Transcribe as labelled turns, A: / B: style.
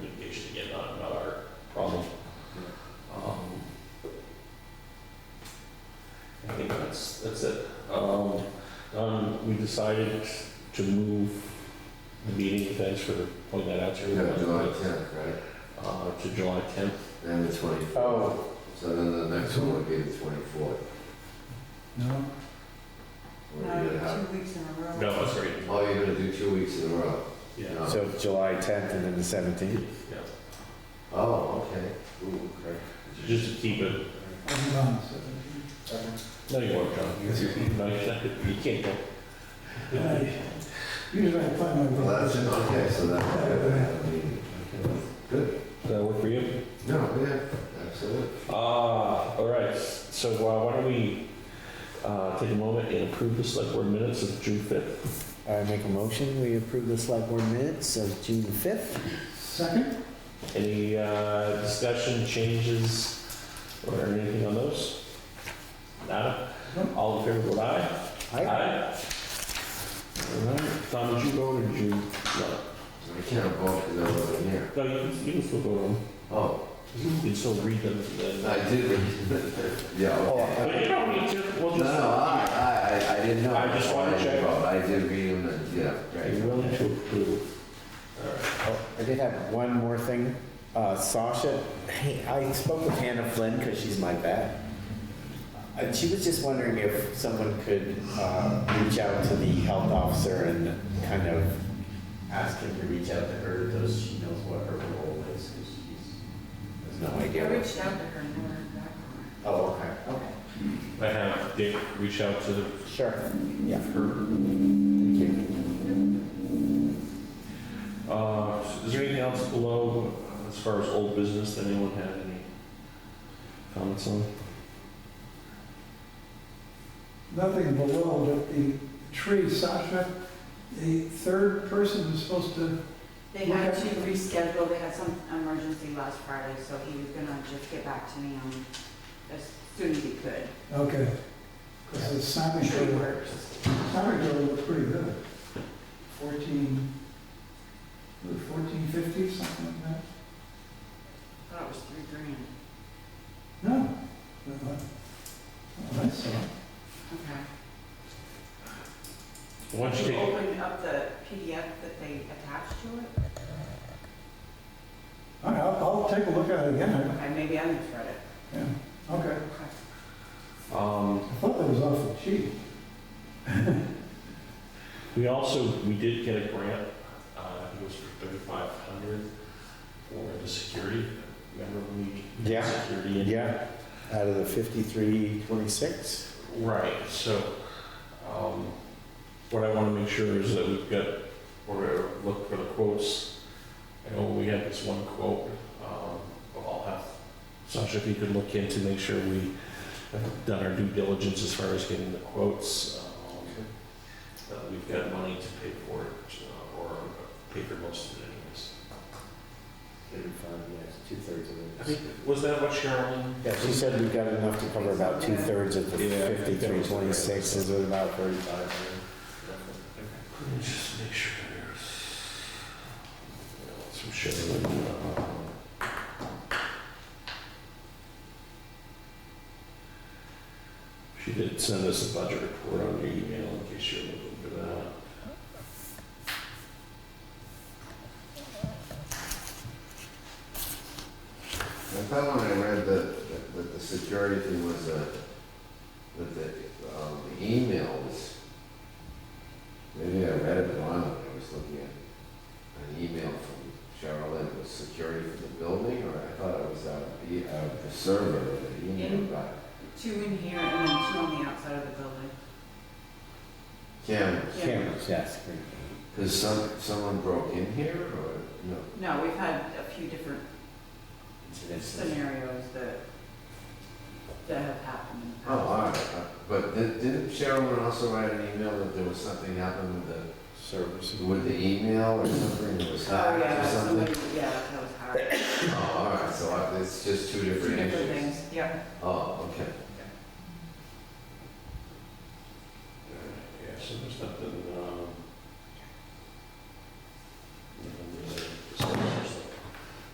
A: Um, Um, decided to move the meeting, thanks for pointing that out to
B: We have July
A: everyone,
B: 10th, right?
A: uh, to July 10th.
B: And the 24th.
A: Oh.
B: So then the next one would be the 24th.
C: No,
B: What
D: No,
B: are you
D: you're
B: gonna have?
D: two weeks in a row.
A: No, that's right.
B: Oh, you're gonna do two weeks in a row?
A: Yeah.
B: No.
E: So July 10th and then the 17th?
A: Yeah.
B: Oh, okay. Ooh, okay.
A: Just to keep it,
C: I'm on the seventeenth.
A: no, you won't, John. No, you can't- you can't go.
C: Usually I find my way.
B: Well, that's, okay, so that, I mean, good.
A: Does that work for you?
B: No, yeah, absolutely.
A: Ah, all right. So uh, why don't we uh, take a moment and approve the select board minutes of June 5th?
E: I make a motion, we approve the select board minutes of June 5th.
C: Second?
A: Any uh, discussion, changes, or anything on those? Nada? All in favor, vote aye.
E: Aye.
A: All right. Tom, did you go or did you? No.
B: I can't vote because I wasn't here.
A: No, you can- you can still go on.
B: Oh,
A: You can still read them. and then-
B: I did. Yeah,
C: Oh.
B: okay.
E: oh,
A: But you don't need to, we'll
B: No, no,
A: just.
B: I, I, I- I didn't know.
A: I just wanna
B: I didn't
A: check.
B: vote. I did read them and, yeah,
A: Are you
B: right.
A: willing to approve? All right.
E: Oh, I did have one more thing. Uh, Sasha, hey, I spoke with Hannah Flynn because she's my vet. And she was just wondering if someone could uh, reach out to the health officer and kind of ask him to reach out to her, though she knows what her role is, 'cause she's, has no
D: I
E: idea. what-
D: reached out to her and never got her.
E: Oh, okay, okay.
A: I have Dick reach out to
E: Sure, yeah.
A: Uh, Is there anything else below, uh, as far as old business, that anyone had any comments on?
C: Nothing below, but the tree, Sasha, the third person who's supposed to,
D: They had to reschedule, they had some emergency last Friday, so he was gonna just get back to me on, as soon as he could.
C: okay. Because the Simon
D: Tree
C: girl,
D: works.
C: Simon girl looked pretty good. Fourteen, fourteen fifty, something like that?
D: Thought it was three grand.
C: No. Not what- not what I saw.
D: Okay.
A: Why don't you
D: Did you
A: take,
D: open up the PDF that they attached to it?
C: All right, I'll, I'll take a look at it again.
D: Okay, maybe I misread it.
C: Yeah, okay.
D: Okay.
A: um,
C: I thought that was awful cheap.
A: we also, we did get a grant, uh, it was for thirty-five hundred for the security. Remember when we? did
E: Yeah.
A: Security. in-
E: Yeah, out of the fifty-three twenty-six.
A: Right, so, um, what I wanna make sure is that we've got, we're gonna look for the quotes. I know we had this one quote, um, but I'll have, Sasha, if you could look in to make sure we have done our due diligence as far as getting the quotes. um, That we've got money to pay for it, uh, or pay for most of it anyways.
E: Thirty-five, yes, two-thirds
A: I
E: of
A: think, was that what Sherilyn?
E: Yeah, she said we got enough to cover about two-thirds of the
A: Yeah.
E: fifty-three twenty-six, is it about thirty-five?
A: Let me just make sure there's some shit. uh, She did send us a budget report on your email in case you're looking for that.
B: I thought when I read that, that the security thing was a, that the, um, the emails, maybe I read it wrong when I was looking at an email from Cheryl, it was security for the building, or I thought it was out of the, out of the server that the email got.
D: Two in here and then two on the outside of the building.
B: Cameras,
D: Yeah.
E: Cameras, yes.
B: because some, someone broke in here, or, no?
D: No, we've had a few different scenarios that, that have happened. in the
B: Oh,
D: past.
B: all right, Uh, but di- didn't Cheryl also write an email that there was something happened with the
E: Service.
B: With the email or something, it was
D: Oh,
B: hacked or
D: yeah,
B: something?
D: somebody, yeah, that was hard.
B: Oh, all right, so I- it's just two
D: Two
B: different
D: different
B: issues.
D: things, yeah.
B: Oh,
A: Uh, um,